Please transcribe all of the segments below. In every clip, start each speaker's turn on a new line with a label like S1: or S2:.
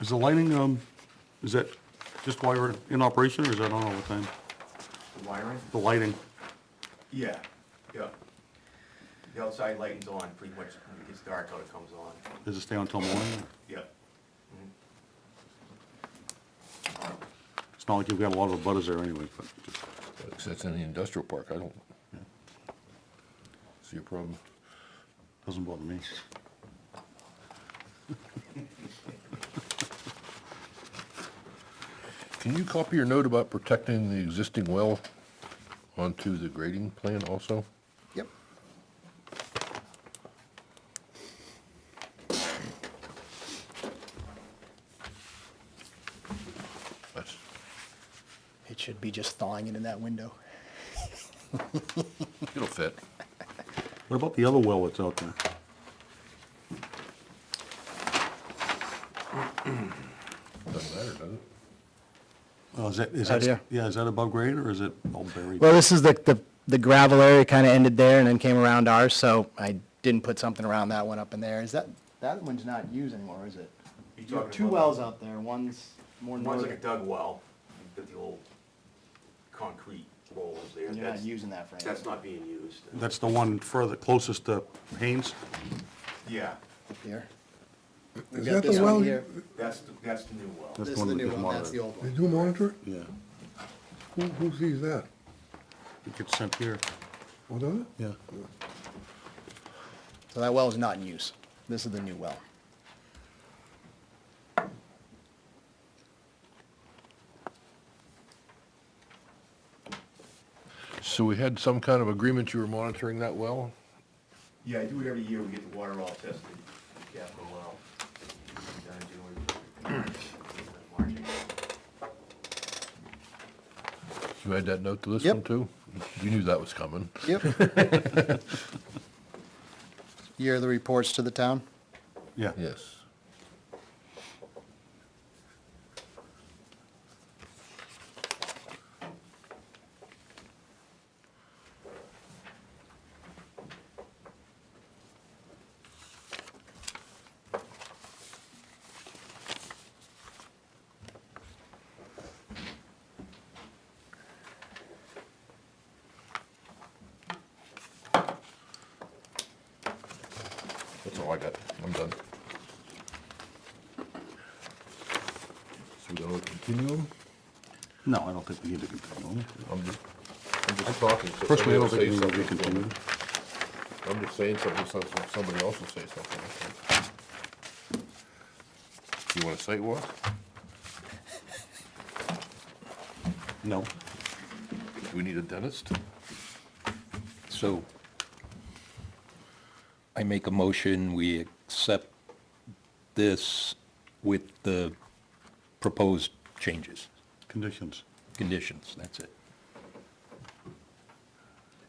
S1: Is the lighting, um, is that just while we're in operation, or is that on all the time?
S2: The wiring?
S1: The lighting?
S2: Yeah, yeah. The outside lighting's on pretty much when it gets dark out, it comes on.
S1: Does it stay on till morning?
S2: Yeah.
S1: It's not like you've got a lot of butters there anyway, but just,
S3: Because that's in the industrial park, I don't see a problem.
S1: doesn't bother me.
S3: Can you copy your note about protecting the existing well onto the grading plan also?
S4: Yep.
S3: That's,
S4: It should be just thawing it in that window.
S3: it'll fit.
S1: What about the other well that's out there?
S3: Doesn't matter, does it?
S1: Oh, is that, is
S4: Out
S1: that,
S4: here?
S1: yeah, is that above grade, or is it all buried?
S4: Well, this is the, the, the gravel area kind of ended there and then came around ours, so I didn't put something around that one up in there. Is that, that one's not used anymore, is it?
S2: You
S4: You have
S2: talking
S4: two
S2: about-
S4: wells out there, one's more
S2: One's like a
S4: northern.
S2: dug well, you got the old concrete rolls there.
S4: You're not
S2: That's-
S4: using that for
S2: That's
S4: anything.
S2: not being used.
S1: That's the one further, closest to Haynes?
S2: Yeah,
S4: up here.
S5: Is
S4: got
S5: that
S4: this
S5: the
S4: one
S5: well,
S4: here.
S5: you
S2: that's, the that's the new well.
S1: That's
S4: This
S1: the
S4: is
S1: one
S4: the
S1: that
S4: new
S1: just
S4: one, that's the
S1: monitored.
S4: old one.
S3: do monitor it?
S1: Yeah,
S3: Who, who sees that?
S1: it gets sent here.
S5: Oh, does it?
S1: Yeah.
S4: So that well is not in use. This is the new well.
S3: So we had some kind of agreement you were monitoring that well?
S2: Yeah, I do it every year, we get the water all tested, capital well. Done doing- Marching.
S3: You had that note to this
S4: Yep.
S3: one too? You knew that was coming.
S4: Yep. Year of the reports to the town?
S1: Yeah.
S3: Yes. That's all I got. I'm done. So we're gonna continue them?
S1: No, I don't think we need to continue.
S3: I'm just, I'm just talking. so
S1: Personally, I don't
S3: somebody
S1: think we
S3: will
S1: need to
S3: say something.
S1: continue.
S3: I'm just saying something, so so somebody else will say something. I think. You want a site walk?
S1: No.
S3: Do we need a dentist?
S6: So I make a motion, we accept this with the proposed changes,
S1: Conditions.
S6: conditions, that's it.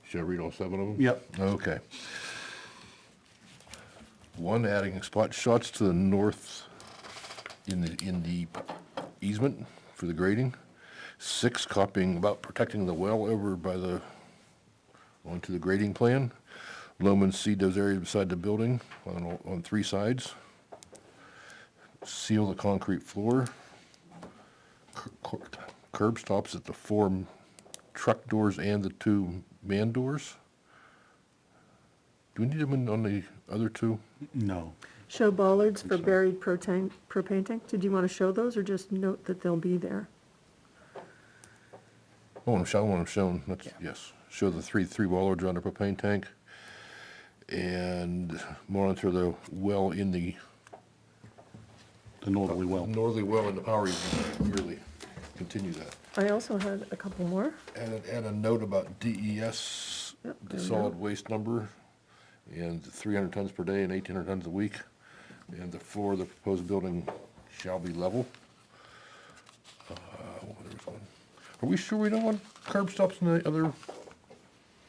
S3: Should I read all seven of them?
S1: Yep.
S3: Okay. One, adding spot shots to the north in the, in the easement for the grading. Six, copying about protecting the well over by the, onto the grading plan. Loam and seed those areas beside the building on, all- on three sides. Seal the concrete floor. Cur- cur- Curb stops at the four truck doors and the two man doors. Do we need them in- on the other two?
S1: No.
S7: Show bollards for buried propane, propane tank. Did you want to show those or just note that they'll be there?
S3: I want them shown, I want them shown, that's, yes. Show the three, three bollards on the propane tank. And monitor the well in the,
S1: The northerly well.
S3: northerly well in the power easement, really, continue that.
S7: I also had a couple more.
S3: Add, a- add a note about DES,
S7: Yep,
S3: the
S7: there we
S3: solid waste number, and three hundred tons per day and eighteen hundred tons a week. And the floor of the proposed building shall be level. Uh, what was there was one? Are we sure we don't want curb stops in the other